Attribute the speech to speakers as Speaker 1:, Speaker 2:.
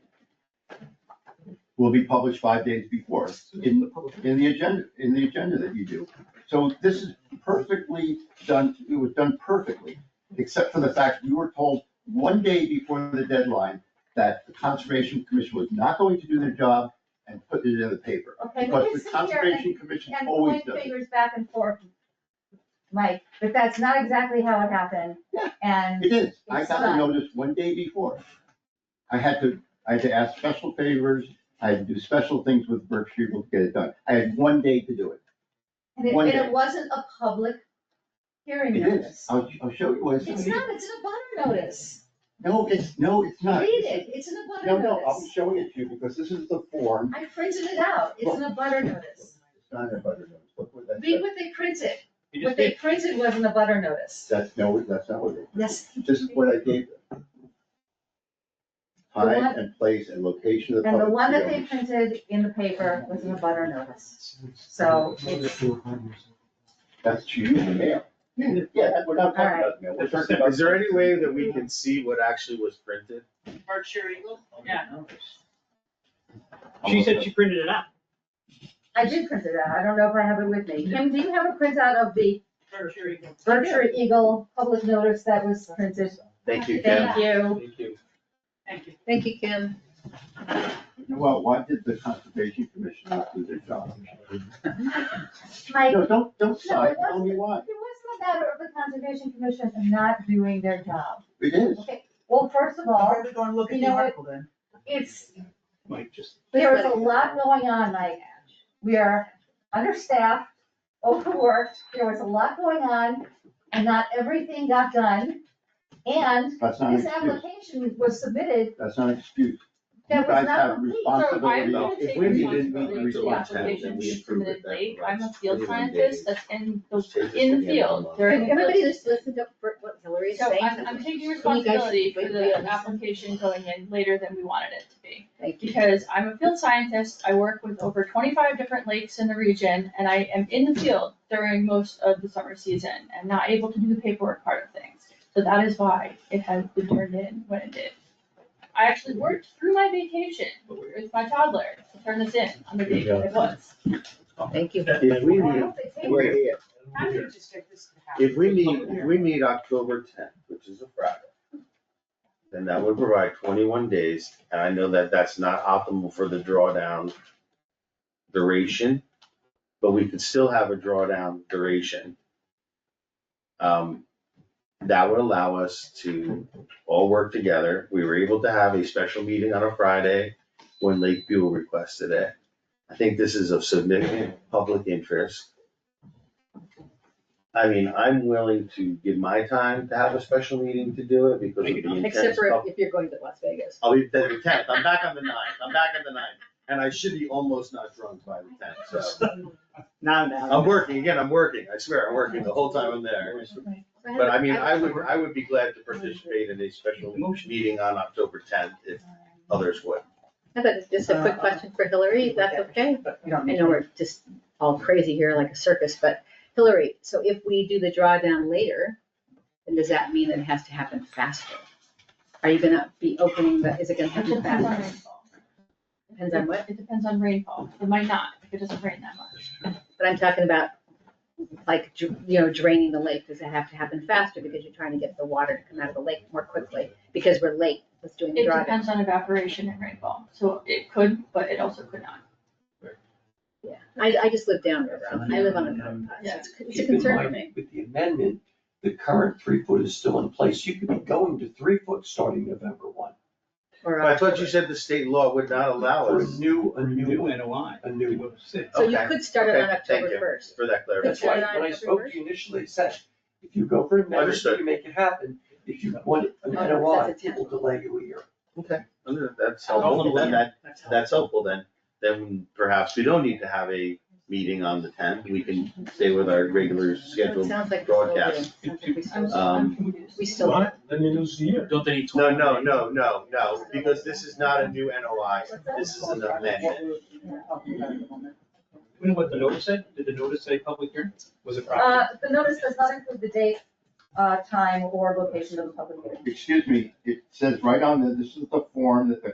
Speaker 1: will be published five days before in, in the agenda, in the agenda that you do. So this is perfectly done, it was done perfectly, except for the fact we were told one day before the deadline that the Conservation Commission was not going to do their job and put it in the paper.
Speaker 2: Okay, we
Speaker 1: Because the
Speaker 2: can sit here and,
Speaker 1: Conservation Commission
Speaker 2: and
Speaker 1: always
Speaker 2: point
Speaker 1: does it.
Speaker 2: fingers back and forth, Mike, but that's not exactly how it happened.
Speaker 1: Yeah.
Speaker 2: And
Speaker 1: It is, I
Speaker 2: It's
Speaker 1: got the
Speaker 2: not.
Speaker 1: notice one day before. I had to, I had to ask special favors, I had to do special things with Berkshire to get it done. I had one day to do it.
Speaker 2: And it,
Speaker 1: One
Speaker 2: and
Speaker 1: day.
Speaker 2: it wasn't a public hearing
Speaker 1: It is,
Speaker 2: notice.
Speaker 1: I'll, I'll show you what it's.
Speaker 2: It's not, it's an abutter notice.
Speaker 1: No, it's, no, it's not.
Speaker 2: Read it, it's an
Speaker 1: No,
Speaker 2: abutter
Speaker 1: no, I'm
Speaker 2: notice.
Speaker 1: showing it to you because this is the form.
Speaker 2: I printed it out, it's an abutter notice.
Speaker 1: It's not a butter notice, look what that
Speaker 2: Read
Speaker 1: says.
Speaker 2: what they printed.
Speaker 3: You
Speaker 2: What
Speaker 3: just
Speaker 2: they
Speaker 3: did,
Speaker 2: printed was an abutter notice.
Speaker 1: That's, no, that's not what it is.
Speaker 2: Yes.
Speaker 1: This is what I gave them.
Speaker 2: The
Speaker 1: Time
Speaker 2: one-
Speaker 1: and place and location of the
Speaker 2: And
Speaker 1: public.
Speaker 2: the one that they
Speaker 1: hearing.
Speaker 2: printed in the paper was an abutter notice. So it's-
Speaker 1: That's to you, the mail.
Speaker 2: Mm-hmm.
Speaker 1: Yeah, we're not talking about the mail. We're talking about-
Speaker 4: Is there any way that we can see what actually was printed?
Speaker 5: Berkshire Eagle? Yeah.
Speaker 3: she said she printed it out.
Speaker 2: I did print it out. I don't know if I have it with me. Kim, do you have a printout of the
Speaker 5: Berkshire Eagle.
Speaker 2: Berkshire Eagle public notice that was printed?
Speaker 4: Thank you, Ken.
Speaker 2: Thank you.
Speaker 3: Thank you.
Speaker 5: Thank you.
Speaker 6: Thank you, Kim.
Speaker 1: Well, why did the conservation commission not do their job?
Speaker 2: Mike,
Speaker 1: No, don't, don't sigh,
Speaker 2: it wasn't.
Speaker 1: tell me why.
Speaker 2: It was the matter of the Conservation Commission not doing their job.
Speaker 1: It is.
Speaker 2: Okay, well, first of all,
Speaker 5: we gonna look
Speaker 2: at the article
Speaker 5: then?
Speaker 2: it's,
Speaker 3: Mike, just.
Speaker 2: there is a lot going on, Mike. We are understaffed, overworked, there was a lot going on, and not everything got done. And
Speaker 1: That's not an
Speaker 2: this
Speaker 1: excuse.
Speaker 2: application was submitted,
Speaker 1: That's not an excuse. You
Speaker 2: that was
Speaker 1: guys
Speaker 2: not
Speaker 1: have
Speaker 2: complete.
Speaker 1: responsibility.
Speaker 4: gonna
Speaker 1: If
Speaker 4: take
Speaker 1: we didn't meet the
Speaker 4: responsibility for the
Speaker 1: response
Speaker 4: application
Speaker 1: deadline, we
Speaker 4: submitted
Speaker 1: approved it.
Speaker 4: late.
Speaker 6: I'm a field
Speaker 4: Everyone
Speaker 6: scientist,
Speaker 4: did.
Speaker 6: that's in, those
Speaker 1: Take this
Speaker 6: in
Speaker 1: to
Speaker 6: the
Speaker 1: the
Speaker 6: field
Speaker 1: end.
Speaker 6: during,
Speaker 2: And everybody-
Speaker 6: just listen to for what Hillary is
Speaker 5: So
Speaker 6: saying.
Speaker 5: I'm, I'm taking
Speaker 6: You guys should
Speaker 5: responsibility for
Speaker 6: wait for
Speaker 5: the
Speaker 6: us.
Speaker 5: application going in later than we wanted it to be.
Speaker 6: Thank you.
Speaker 5: Because I'm a field scientist, I work with over twenty-five different lakes in the region, and I am in the field during most of the summer season and not able to do the paperwork part of things. So that is why it has been turned in when it did. I actually worked through my vacation with my toddler to turn this in on the date that it was.
Speaker 6: Thank you.
Speaker 4: If we
Speaker 2: I
Speaker 4: need,
Speaker 2: hope they take it.
Speaker 4: wait, if we need, if we need October tenth, which is a Friday, then that would provide twenty-one days, and I know that that's not optimal for the drawdown duration, but we could still have a drawdown duration. Um, that would allow us to all work together. We were able to have a special meeting on a Friday when Lake Buell requested it. I think this is of significant public interest. I mean, I'm willing to give my time to have a special meeting to do it because of the intense.
Speaker 6: Except for
Speaker 4: pub-
Speaker 6: if you're going to Las Vegas.
Speaker 4: I'll be the tenth, I'm back on the ninth, I'm back on the ninth, and I should be almost not drunk by the tenth, so.
Speaker 3: Now,
Speaker 4: I'm working, again, I'm working, I swear, I'm working the whole time I'm there. But I mean, I would, I would be glad to participate in a special meeting on October tenth if others would.
Speaker 6: I thought just a quick question for Hillary, if that's okay? I know we're just all crazy here like a circus, but Hillary, so if we do the drawdown later, then does that mean that it has to happen faster? Are you gonna be opening the, is it gonna
Speaker 5: It
Speaker 6: happen
Speaker 5: depends on
Speaker 6: faster?
Speaker 5: rainfall.
Speaker 6: Depends on what,
Speaker 5: It depends on rainfall. It might not, if it doesn't rain that much.
Speaker 6: but I'm talking about like, dr- you know, draining the lake, does it have to happen faster because you're trying to get the water to come out of the lake more quickly? Because we're late with doing the
Speaker 5: It
Speaker 6: drawdown.
Speaker 5: depends on evaporation and rainfall, so it could, but it also could not.
Speaker 6: Yeah, I, I just live downriver, I live on a mountain, so it's, it's a concern for me.
Speaker 7: With the amendment, the current three foot is still in place. You could be going to three foot starting November one.
Speaker 6: Or,
Speaker 4: But I thought you said the state law would not allow
Speaker 7: For a
Speaker 4: us
Speaker 7: new, a new,
Speaker 3: NOI.
Speaker 7: a new.
Speaker 6: so you
Speaker 4: okay,
Speaker 6: could start it on
Speaker 4: okay, thank
Speaker 6: October
Speaker 4: you.
Speaker 6: first.
Speaker 4: for that
Speaker 7: That's
Speaker 4: clarification.
Speaker 7: why when I spoke to you initially, it said, if you go for an amendment, you
Speaker 4: Understood.
Speaker 7: can make it happen. If you want an
Speaker 6: Oh,
Speaker 7: NOI,
Speaker 6: that's a
Speaker 7: it will delay you a year.
Speaker 4: Okay, that's helpful, then that, that's helpful then, then perhaps we don't need to have a meeting on the tenth, we can stay with our regular scheduled
Speaker 6: Sounds like we're still doing,
Speaker 4: broadcast.
Speaker 6: sounds like we
Speaker 5: I'm, I'm
Speaker 6: still,
Speaker 4: Um,
Speaker 5: confused.
Speaker 6: we still.
Speaker 8: Then you lose the year.
Speaker 3: Don't they need
Speaker 4: No, no, no, no, no, because this is not a new NOI, this is an amendment.
Speaker 3: You know what the notice said? Did the notice say public hearing? Was it proper?
Speaker 2: Uh, the notice does not include the date, uh, time, or location of the public hearing.
Speaker 1: Excuse me, it says right on there, this is the form that the